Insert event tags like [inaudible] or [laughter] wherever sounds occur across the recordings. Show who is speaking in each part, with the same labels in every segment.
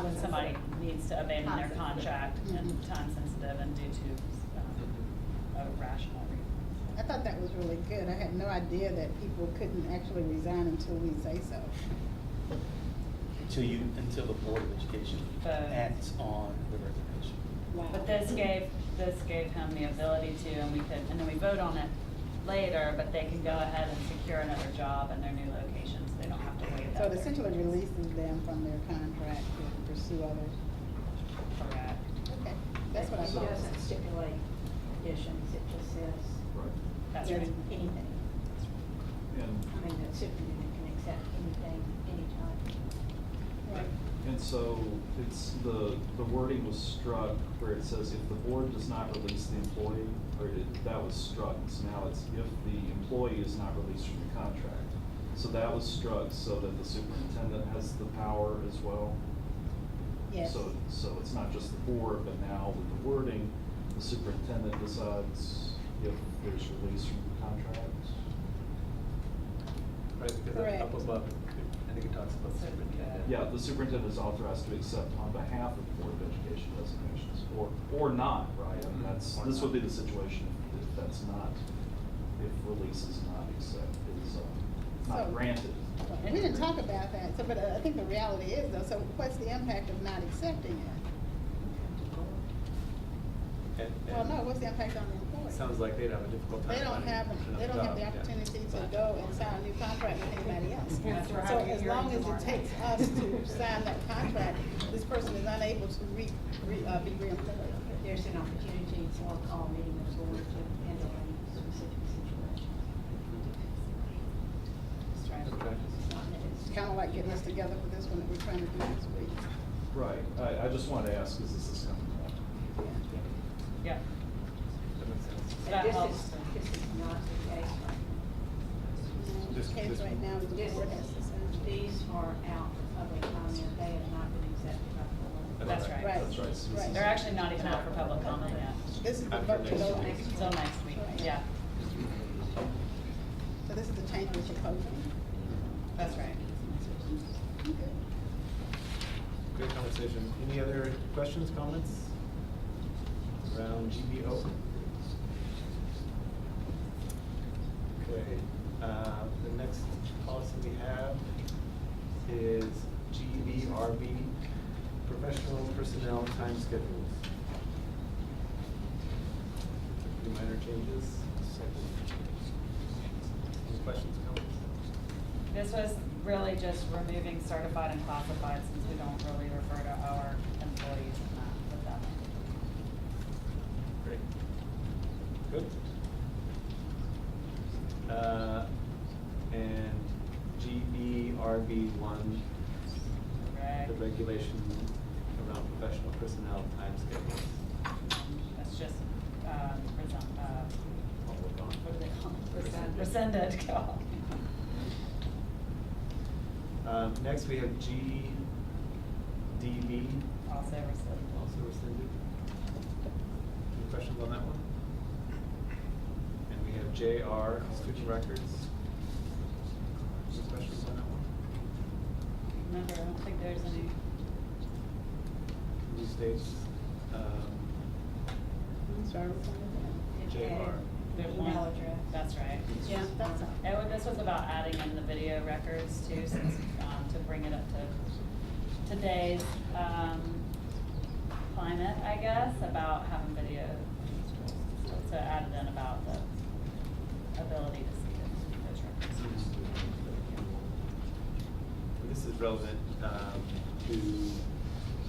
Speaker 1: when somebody needs to abandon their contract and
Speaker 2: Mhm.
Speaker 1: time sensitive and due to, um, a rational reason.
Speaker 2: I thought that was really good. I had no idea that people couldn't actually resign until we say so.
Speaker 3: Until you, until the Board of Education
Speaker 1: But-
Speaker 3: acts on the resignation.
Speaker 2: Wow.
Speaker 1: But this gave, this gave him the ability to, and we could, and then we vote on it later, but they can go ahead and secure another job in their new locations. They don't have to wait
Speaker 2: So it
Speaker 1: that thirty
Speaker 2: essentially
Speaker 1: days.
Speaker 2: releases them from their contract to pursue others.
Speaker 1: Correct.
Speaker 2: Okay, that's what I
Speaker 4: It doesn't
Speaker 2: thought.
Speaker 4: stipulate conditions, it just says
Speaker 5: Right,
Speaker 1: That's
Speaker 2: Yeah.
Speaker 1: right.
Speaker 4: anything.
Speaker 5: and,
Speaker 4: I mean, the superintendent can accept anything, anytime.
Speaker 2: Right.
Speaker 5: and so it's, the, the wording was struck where it says if the board does not release the employee, or it- that was struck, so now it's if the employee is not released from the contract. So that was struck so that the superintendent has the power as well.
Speaker 2: Yes.
Speaker 5: So, so it's not just the board, but now with the wording, the superintendent decides if there's release from the contract.
Speaker 6: Right, because up- up
Speaker 2: Correct.
Speaker 6: above, uh, I think it talks about
Speaker 1: So,
Speaker 6: superintendent.
Speaker 5: Yeah, the superintendent is authorized to accept on behalf of the Board of Education resignations, or, or not, right? I mean, that's,
Speaker 6: Or
Speaker 5: this
Speaker 6: not.
Speaker 5: would be the situation if- if that's not, if release is not accept, is um,
Speaker 2: So-
Speaker 5: not granted.
Speaker 2: Well, We didn't talk about that, so, but uh, I think the reality is though, so what's the impact of not accepting it?
Speaker 6: And-
Speaker 2: Well,
Speaker 6: and
Speaker 2: no, what's the impact on the employee?
Speaker 6: it Sounds like they'd have a difficult time.
Speaker 2: They don't
Speaker 6: finding
Speaker 2: have, they
Speaker 6: another
Speaker 2: don't have the
Speaker 6: job, yeah.
Speaker 2: opportunity to go and sign a new contract with anybody else.
Speaker 1: Yes, we're
Speaker 2: So
Speaker 1: having a
Speaker 2: as
Speaker 1: hearing
Speaker 2: long as
Speaker 1: tomorrow
Speaker 2: it takes
Speaker 1: night.
Speaker 2: us to sign that contract, this person is unable to re, re, uh, be reemployed.
Speaker 4: If there's an opportunity for a call meeting of the board to handle any specific situation.
Speaker 1: That's right.
Speaker 6: Okay.
Speaker 4: It's not that it's.
Speaker 2: It's kind of like getting us together for this one that we're trying to do this week.
Speaker 5: Right, I, I just wanted to ask, is this is coming up?
Speaker 1: Yeah.
Speaker 6: That makes sense.
Speaker 1: So
Speaker 4: And
Speaker 1: that
Speaker 4: this
Speaker 1: helps.
Speaker 4: is, this is not the case right now.
Speaker 2: Yeah.
Speaker 6: Just-
Speaker 2: Case
Speaker 6: just-
Speaker 2: right now is the
Speaker 4: This
Speaker 2: board has to
Speaker 4: is,
Speaker 2: sign.
Speaker 4: these are out for public comment, they have not been accepted by the board.
Speaker 1: That's right.
Speaker 5: That's right. so this is-
Speaker 1: They're actually not even out for public comment yet.
Speaker 2: This is the vote
Speaker 6: After
Speaker 2: to
Speaker 6: next
Speaker 2: go
Speaker 6: week.
Speaker 2: next week.
Speaker 1: Till next week, yeah.
Speaker 2: So this is the change we're proposing?
Speaker 1: That's right.
Speaker 6: Great conversation. Any other questions, comments? Around GBO? Okay, uh, the next policy we have is GBRB, professional personnel time schedules. A few minor changes. Any questions, comments?
Speaker 1: This was really just removing certified and classified since we don't really refer to our employees in that, with that.
Speaker 6: Great. Good. Uh, And GBRB one, the
Speaker 1: Right?
Speaker 6: regulation around professional personnel time schedules.
Speaker 1: That's just, um, resent, uh,
Speaker 6: I'll work on.
Speaker 1: what do they call it?
Speaker 4: Rescinded.
Speaker 1: Rescinded. [laughs]
Speaker 6: Um, Next, we have E GDB,
Speaker 1: Also rescinded.
Speaker 6: also rescinded. Any questions on that one? And we have JR, student records. Any questions on that one?
Speaker 1: Remember, I don't think there's any,
Speaker 6: New states, um,
Speaker 2: Sorry, we're going
Speaker 4: It
Speaker 6: JR.
Speaker 4: had
Speaker 1: there's one.
Speaker 4: Email address.
Speaker 1: That's right.
Speaker 2: to- Yeah, that's all.
Speaker 1: And what this was about adding in the video records too, since, um, to bring it up to today's, um, climate, I guess, about having video. So added in about the ability to see those records.
Speaker 6: this is relevant, um, to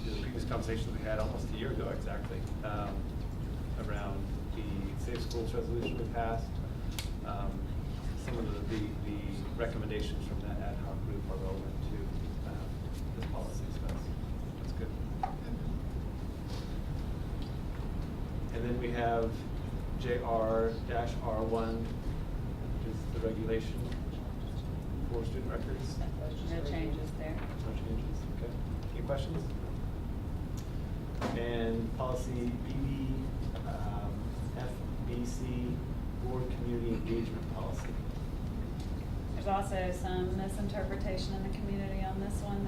Speaker 6: the previous conversation we had almost a year ago exactly, um, around the safe schools resolution we passed. Um, some of the, the, the recommendations from that ad hoc group are relevant to, um, this policy, so that's, that's good. And then we have JR dash R one, which is the regulation for student records.
Speaker 1: No changes there.
Speaker 6: No changes, okay. Any questions? And policy BB, um, FBC, board community engagement policy.
Speaker 1: There's also some misinterpretation in the community on this one